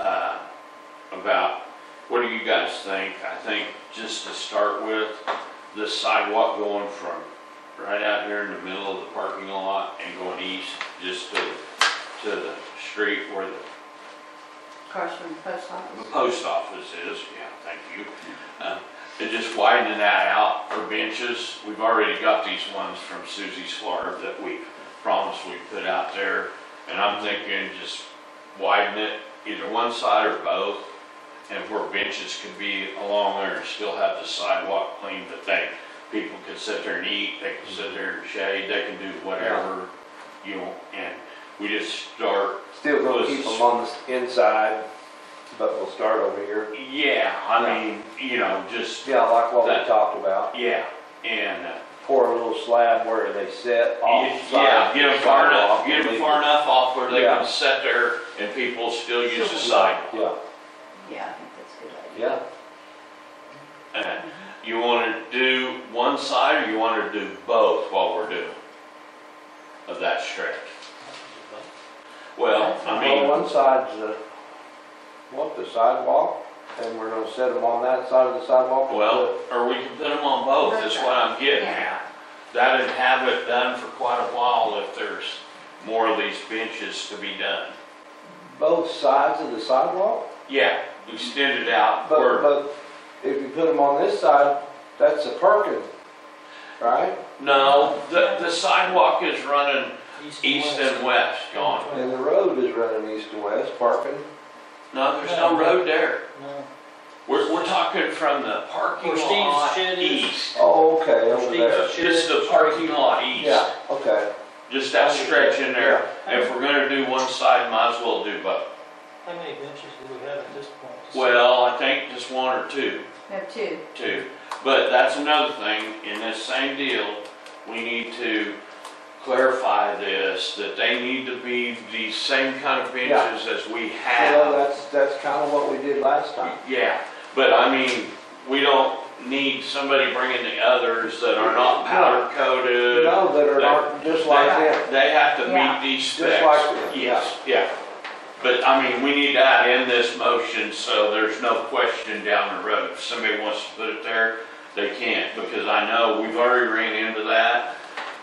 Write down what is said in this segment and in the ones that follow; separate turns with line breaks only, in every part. uh, guys think? I think just to start with, the sidewalk going from right out here in the middle of the parking lot and going east, just to, to the street where the,
across from the post office.
the post office is, yeah, thank you. Uh, And just widening that out for benches, we've already got these ones from Susie's Florb that we promised we'd put out there. And I'm thinking just widen it, either one side or both, and where benches could be along there and still have the sidewalk clean, but they, people can sit there and eat, they can sit there and shade, they can do whatever, you know, and we just start
Still gonna keep them on the inside, but we'll start over here.
Yeah, I mean, you know, just,
Yeah, like what
That-
we talked about,
yeah, and, uh,
pour a little slab where they sit
y-
off.
yeah,
side
get
of
them
the
far
sidewalk
enough, get
and
them
leave
far
it.
enough off where they can
Yeah.
sit there and people still use the sidewalk.
Yeah,
Yeah, I think that's a good idea.
yeah,
Uh, You wanna do one side or you wanna do both while we're doing of that stretch? Well, I
well,
mean,
one side's the, what, the sidewalk, and we're gonna set them on that side of the sidewalk.
well, or we can put them on both, Oh, is what I'm getting
Yeah.
at. That'd have it done for quite a while if there's more of these benches to be done.
Both sides of the sidewalk,
Yeah, we extend it out,
but,
or,
but if you put them on this side, that's the parking, right?
no, the, the sidewalk is running east and west, gone.
And the road is running east to west, parking.
No, there's no road there.
No.
We're, we're talking from the parking
Where Steve's
lot
shed is.
east.
Oh, okay, over
Steve's
there.
shed.
Just the parking lot east,
Yeah, okay.
just that stretch in there. If we're gonna do one side, might as well do both.
How many benches do we have at this point?
Well, I think just one or two.
We have two.
too. But that's another thing, in this same deal, we need to clarify this, that they need to be the same kind of benches as we
Well,
have.
that's, that's kind of what we did last time.
Yeah, but I mean, we don't need somebody bringing the others that are not powder coated.
No, that are not, just like that.
They they have to
Yeah.
meet these specs.
Just like them, yeah.
Yes, yeah. But I mean, we need that in this motion, so there's no question down the road. If somebody wants to put it there, they can't, because I know we've already ran into that.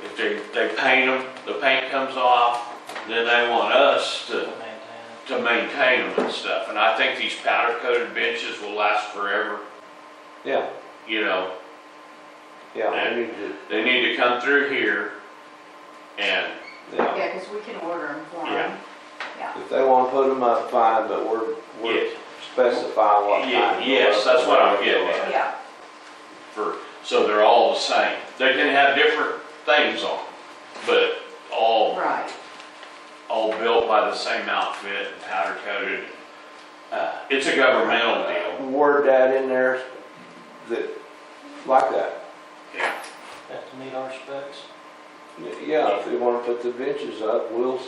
If they, they paint them, the paint comes off, then they want us to,
Maintain.
to maintain them and stuff. And I think these powder coated benches will last forever,
Yeah,
you know?
yeah, we need to,
They need to come through here and,
yeah.
Yeah, because we can order them for them.
Yeah.
If they want to put them up, fine, but we're, we're
yeah.
specifying what kind.
Yeah, yes, that's what I'm getting at.
Yeah,
for, so they're all the same. They can have different things on, but all,
right.
all built by the same outfit and powder coated. Uh, It's a governmental deal,
Word that in there, that, like that.
yeah.
Have to meet our specs.
Yeah, if they want to put the benches up, we'll,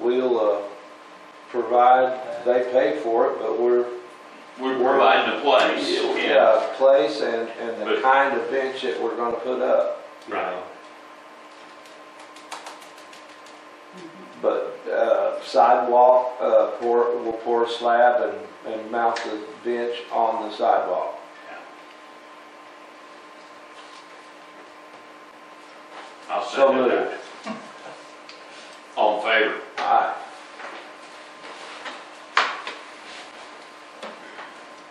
we'll, uh, provide, they pay for it, but we're,
We're we're providing the place, yeah,
yeah, place and, and the
But-
kind of bench that we're gonna put up. you
Right.
know.
Mm-hmm.
But, uh, sidewalk, uh, pour, we'll pour a slab and, and mount the bench on the sidewalk.
I'll
So
send it
moved.
back. All in favor?
Aye.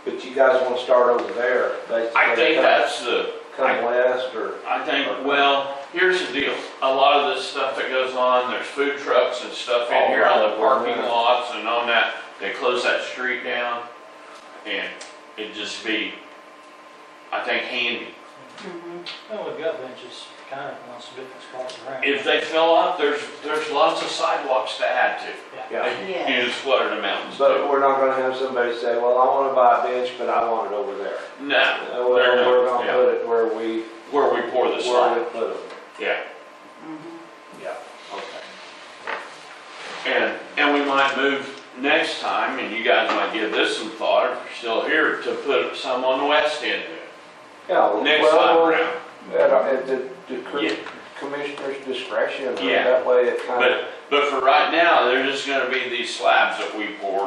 But you guys wanna start over there, basically?
I think
come-
that's the, I-
Come west or,
I think, well, here's the deal, a lot of this stuff that goes on, there's food trucks and stuff in here on the parking lots and on that, they close that street down, and it'd just be, I think handy.
Mhm.
Well, we've got benches kind of on some different spots around.
If they fill up, there's, there's lots of sidewalks to add to.
yeah.
You just flooded the mountains.
But we're not gonna have somebody say, well, I wanna buy a bench, but I want it over there. Uh,
No,
Well,
they're not,
we're gonna
yeah.
put it where we,
where we pour the
where
slime,
we put them.
yeah.
Mhm.
Yeah, okay.
And, and we might move next time, and you guys might give this some thought, if you're still here, to put some on the west end there.
Yeah,
Next time
well,
around.
at, at the, the cr-
Yeah.
commissioner's discretion, or
Yeah.
that way it kinda.
But, but for right now, they're just gonna be these slabs that we pour